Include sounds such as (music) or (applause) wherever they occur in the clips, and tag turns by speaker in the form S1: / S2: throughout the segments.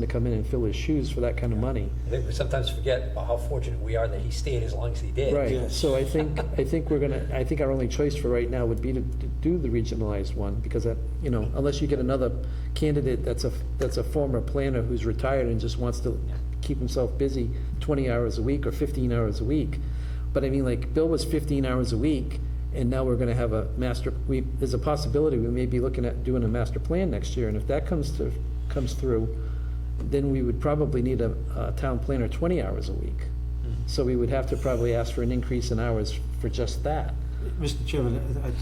S1: to come in and fill his shoes for that kind of money.
S2: I think we sometimes forget about how fortunate we are that he stayed as long as he did.
S1: Right, so I think, I think we're gonna, I think our only choice for right now would be to to do the regionalized one, because that, you know, unless you get another candidate that's a, that's a former planner who's retired and just wants to keep himself busy twenty hours a week or fifteen hours a week. But I mean, like, Bill was fifteen hours a week, and now we're gonna have a master, we, there's a possibility we may be looking at doing a master plan next year, and if that comes to, comes through, then we would probably need a, a town planner twenty hours a week.
S3: Mm-hmm.
S1: So we would have to probably ask for an increase in hours for just that.
S4: Mr. Chairman, I- I-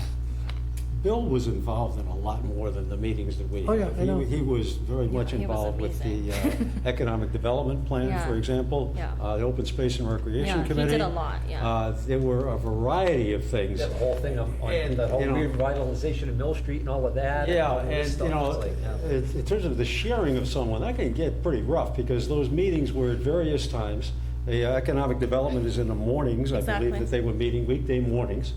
S4: Bill was involved in a lot more than the meetings that we
S1: Oh,
S4: have.
S1: yeah, I know.
S4: He he was very much
S5: he was
S4: involved with the
S5: amazing. (laughs)
S4: uh, Economic Development Plan, for
S5: Yeah.
S4: example,
S5: Yeah.
S4: uh, the Open Space and
S5: Yeah,
S4: Recreation
S5: he did
S4: Committee.
S5: a lot, yeah.
S4: Uh, There were a variety of things.
S2: That whole thing on, on
S4: And,
S2: the whole
S4: you know-
S2: revitalization of Mill Street and all of that.
S4: Yeah,
S2: all this
S4: and,
S2: stuff.
S4: you know,
S2: It's like, yeah.
S4: it- in terms of the sharing of someone, that can get pretty rough, because those meetings were at various times. The uh, economic development is in the mornings, I believe
S5: Exactly.
S4: that they were meeting weekday mornings.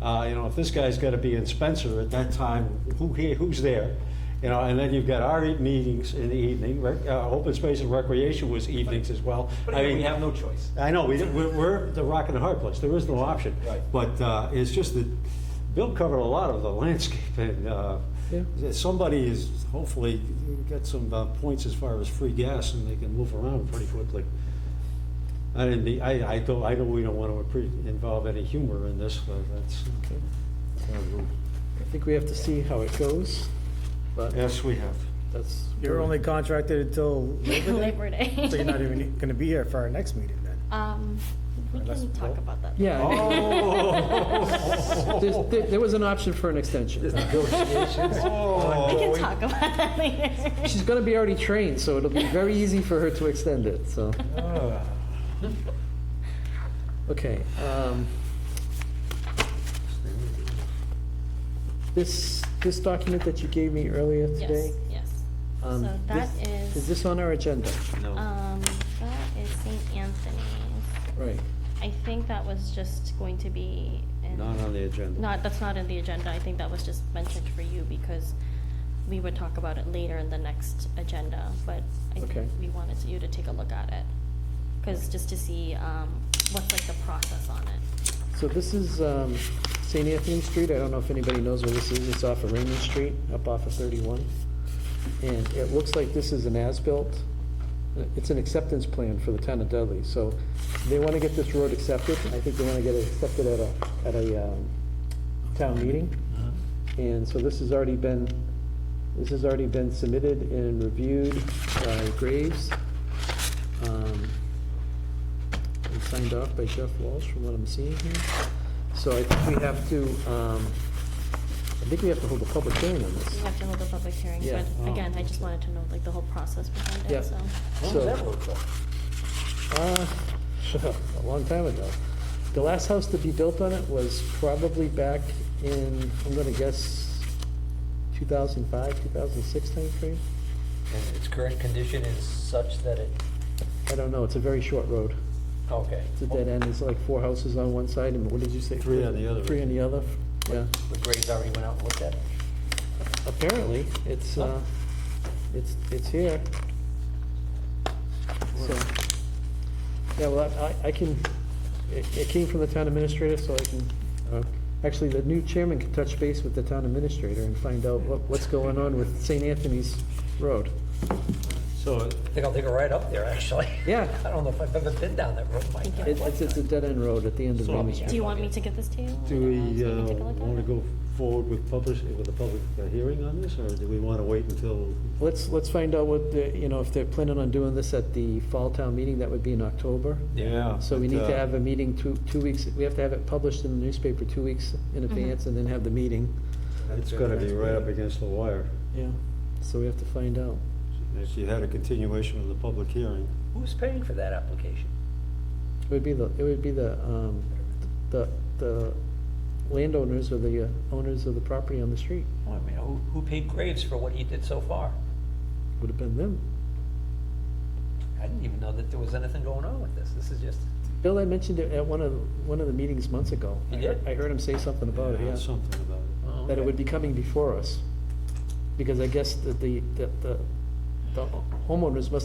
S4: Uh, You know, if this guy's got to be in Spencer at that time, who, here- who's there? You know, and then you've got our meetings in the evening, rec- uh, open space and recreation was evenings as well.
S2: But
S4: I
S2: again, we
S4: mean,
S2: have no choice.
S4: I know, we, we're, we're the rock and the hard place, there is no option.
S2: Right.
S4: But uh, it's just that Bill covered a lot of the landscape, and uh,
S1: Yeah.
S4: somebody is hopefully got some uh, points as far as free gas, and they can move around pretty quickly. I didn't, be- I, I don't, I know we don't want to involve any humor in this, but that's,
S1: Okay. I think we have to see how it goes, but
S4: yes, we have.
S1: that's.
S3: You're only contracted until Labor
S5: Labor Day.
S3: Day? (laughs) So you're not even going to be here for our next meeting then?
S5: Um, we
S3: Unless-
S5: can talk about that.
S1: Yeah, I mean,
S4: Oh.
S1: there's- there, there was an option for an extension.
S5: We
S4: Oh.
S5: can talk about that later.
S1: (laughs) She's gonna be already trained, so it'll be very easy for her to extend it, so,
S4: Ah.
S1: okay. um, This, this document that you gave me earlier today?
S5: Yes, yes.
S1: um,
S5: So that
S1: this-
S5: is-
S1: Is this on our agenda?
S4: No.
S5: Um, that is St. Anthony's.
S1: Right.
S5: I think that was just going to be. in-
S4: Not on the agenda.
S5: Not, that's not in the agenda. I think that was just mentioned for you because we would talk about it later in the next agenda, but I
S1: Okay.
S5: think we wanted you to take a look at it. Cause just to see, um, what's like the process on it.
S1: So this is um, St. Anthony Street, I don't know if anybody knows where this is, it's off of Raymond Street, up off of 31. And it looks like this is an as-built, uh, it's an acceptance plan for the town of Dudley, so they want to get this road accepted, I think they want to get it accepted at a, at a um, town meeting. And so this has already been, this has already been submitted and reviewed by Graves. Um, and signed off by Jeff Walsh from what I'm seeing here. So I think we have to, um, I think we have to hold a public hearing on
S5: We
S1: this.
S5: have to hold a public hearing,
S1: Yeah.
S4: Oh,
S5: but again, I just wanted to know like the whole process behind
S1: Yeah.
S5: it, so.
S2: When was
S1: So-
S2: Oh, that road
S1: Uh,
S2: built?
S1: (laughs) A long time ago. The last house to be built on it was probably back in, I'm gonna guess, 2005, 2006 timeframe?
S2: And its current condition is such that it,
S1: I don't know, it's a very short road.
S2: okay.
S1: It's a dead end, it's like four houses on one side, and what did you say?
S4: Three on the other.
S1: Three on the other, yeah.
S2: But Graves already went out and looked at it.
S1: Apparently, it's, uh, it's, it's here. So, yeah, well, I, I can, it, it came from the town administrator, so I can, uh, actually, the new chairman can touch base with the town administrator and find out what, what's going on with St. Anthony's Road.
S4: So
S2: I think I'll take a ride up there, actually.
S1: Yeah.
S2: (laughs) I don't know if I've ever been down that road, Mike.
S5: Thank you.
S1: It- It's, it's a dead-end road at the end of
S4: So-
S1: Raymond
S5: Do
S1: Street.
S5: you want me to get this to you?
S4: Do
S5: uh,
S4: we
S5: so you can take a look at
S4: want to
S5: it?
S4: go forward with publish, with a public uh, hearing on this, or do we want to wait until?
S1: Let's, let's find out what, the you know, if they're planning on doing this at the fall town meeting, that would be in October.
S4: Yeah.
S1: So we
S4: but,
S1: need to
S4: uh,
S1: have a meeting two, two weeks, we have to have it published in the newspaper two weeks in advance and then have the meeting.
S4: It's going to be right up against the wire.
S1: Yeah. So we have to find out.
S4: If you had a continuation of the public hearing.
S2: Who's paying for that application?
S1: It would be the, it would be the, um, the, the landowners or the uh, owners of the property on the street,
S2: Well, Oh, I mean, who, who paid Graves for what he did so far?
S1: would have been them.
S2: I didn't even know that there was anything going on with this. This is just,
S1: Bill, I mentioned it at one of, one of the meetings months ago.
S2: You
S1: I heard-
S2: did?
S1: I heard him say something about it,
S4: Yeah,
S1: yeah,
S4: Something about it.
S2: oh,
S1: that it
S2: okay.
S1: would be coming before us. Because I guess that the, that the, the homeowners must have